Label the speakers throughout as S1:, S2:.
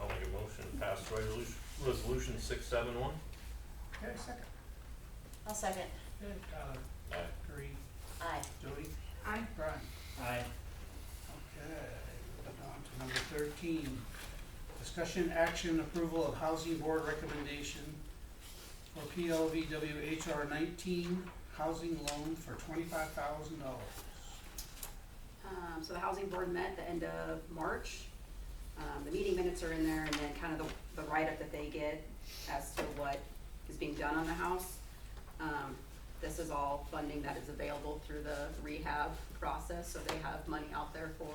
S1: I'll make a motion to pass resolution, resolution six seven one.
S2: Okay, second.
S3: I'll second.
S2: Good, uh, Tyler,
S1: Aye.
S2: Green,
S3: Aye.
S2: Jody,
S4: Aye.
S2: Brian.
S5: Aye.
S2: Okay, moving on to number thirteen. Discussion action approval of housing board recommendation for PLVW HR nineteen housing loan for twenty-five thousand dollars.
S4: Um, so the housing board met the end of March. Um, the meeting minutes are in there and then kind of the, the write-up that they get as to what is being done on the house. Um, this is all funding that is available through the rehab process, so they have money out there for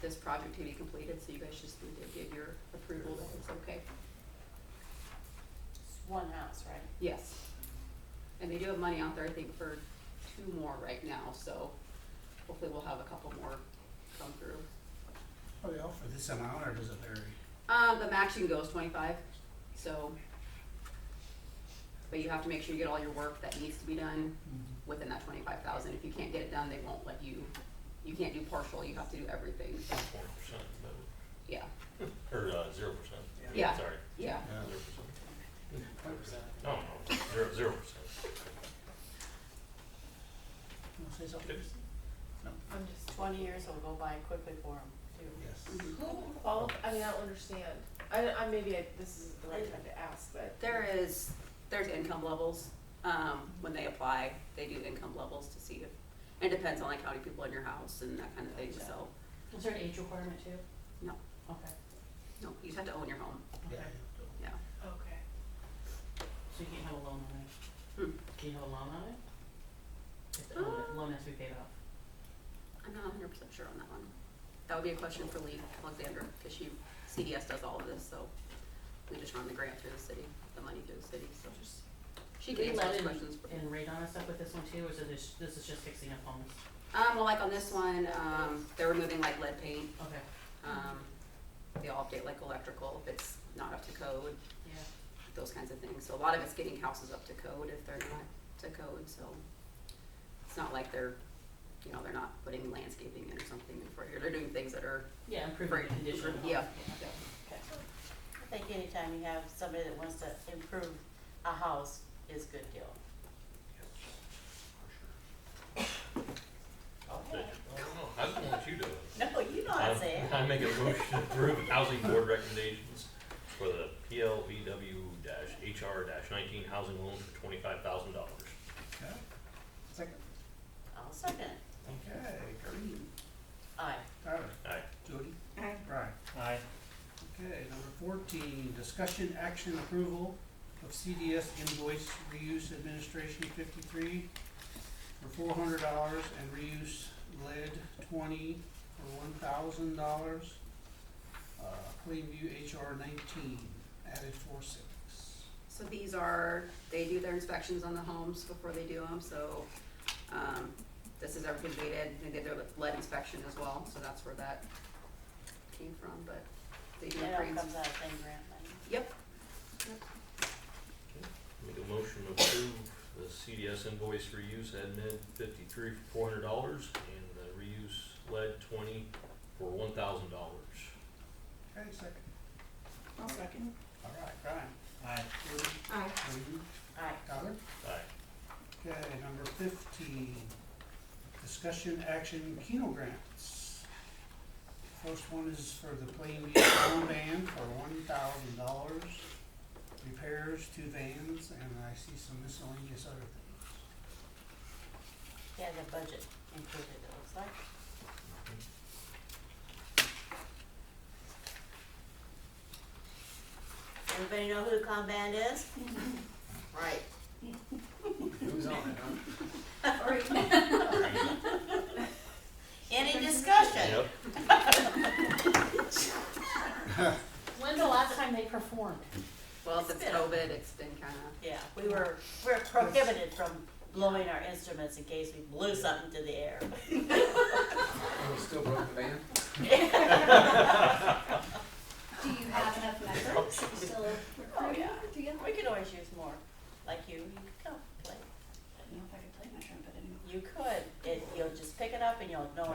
S4: this project to be completed, so you guys just need to give your approval that it's okay.
S3: It's one house, right?
S4: Yes. And they do have money out there, I think, for two more right now, so hopefully we'll have a couple more come through.
S2: Are Oh, they all for this amount or does it vary?
S4: Um, the max you can go is twenty-five, so. But you have to make sure you get all your work that needs to be done
S2: Mm-hmm.
S4: within that twenty-five thousand. If you can't get it done, they won't let you, you can't do partial, you have to do everything,
S1: Four percent,
S4: yeah,
S1: or, uh, zero percent.
S4: Yeah.
S1: Sorry,
S4: yeah.
S2: Yeah.
S1: zero percent. No, no, zero, zero percent.
S2: Wanna say something?
S6: I'm just,
S3: Twenty years will go by quickly for them, too.
S2: Yes.
S4: Mm-hmm.
S6: who qual, I mean, I don't understand. I, I, maybe I, this is the right time to ask, but.
S4: There is, there's income levels, um, when they apply, they do income levels to see if, and it depends on like how many people in your house and that kind of thing, so.
S3: Is there an age requirement too?
S4: No.
S3: Okay.
S4: No, you just have to own your home,
S2: Yeah.
S4: yeah.
S6: Okay.
S7: So you can't have a loan on it?
S4: Hmm.
S7: Can you have a loan on it? If the
S3: Uh.
S7: loan, loan has to be paid off.
S4: I'm not hundred percent sure on that one. That would be a question for Lee Alexander, because she, CDS does all of this, so we just run the grant through the city, the money through the city, so just, she can
S7: They
S4: answer
S7: let
S4: those
S7: in-
S4: questions.
S7: And rate on us up with this one too, or is it just, this is just fixing up homes?
S4: Um, well, like on this one, um, they're removing like lead paint,
S7: Okay,
S4: um, they all update like electrical, if it's not up to code,
S7: yeah.
S4: those kinds of things. So a lot of it's getting houses up to code if they're not to code, so it's not like they're, you know, they're not putting landscaping in or something in front here, they're doing things that are,
S7: Yeah, improving
S4: Right.
S7: the condition of the home.
S4: yeah,
S7: Yeah.
S4: yeah.
S3: I think anytime you have somebody that wants to improve a house is a good deal. Okay.
S1: I don't know, I just want you to.
S3: No, you know what
S1: Um,
S3: I'm saying.
S1: I make a motion to approve housing board recommendations for the PLVW HR nineteen housing loan for twenty-five thousand dollars.
S2: Okay. Second.
S3: I'll second it.
S2: Okay, Green,
S3: Aye.
S2: Tyler,
S1: Aye.
S2: Jody,
S4: Aye.
S2: Brian.
S5: Aye.
S2: Okay, number fourteen, discussion action approval of CDS invoice reuse administration fifty-three for four hundred dollars and reuse lead twenty for one thousand dollars. Uh, Plainview HR nineteen, added four six.
S4: So these are, they do their inspections on the homes before they do them, so, um, this is everything they did, they did their lead inspection as well, so that's where that came from, but they do
S3: It
S4: pre-
S3: all comes out of thing grant money.
S4: Yep,
S1: Make a motion to approve the CDS invoice reuse admin fifty-three for four hundred dollars and the reuse lead twenty for one thousand dollars.
S2: Okay, second.
S6: I'll second.
S2: All right, Brian.
S5: Aye.
S2: Jody,
S4: Aye.
S2: Green,
S3: Aye.
S2: Tyler.
S1: Aye.
S2: Okay, number fifteen, discussion action Keno grants. First one is for the Plainview Town Van for one thousand dollars, repairs to vans, and I see some miscellaneous other things.
S3: Yeah, the budget included, it looks like. Everybody know who Kanban is? Right.
S5: Who's on it, huh?
S3: Any discussion?
S1: Yep.
S7: When's the last time they performed?
S4: well, since
S3: It's been-
S4: COVID, it's been kinda,
S3: Yeah, we were, we're prohibited from blowing our instruments in case we blew something to the air.
S8: Oh, still broke the van?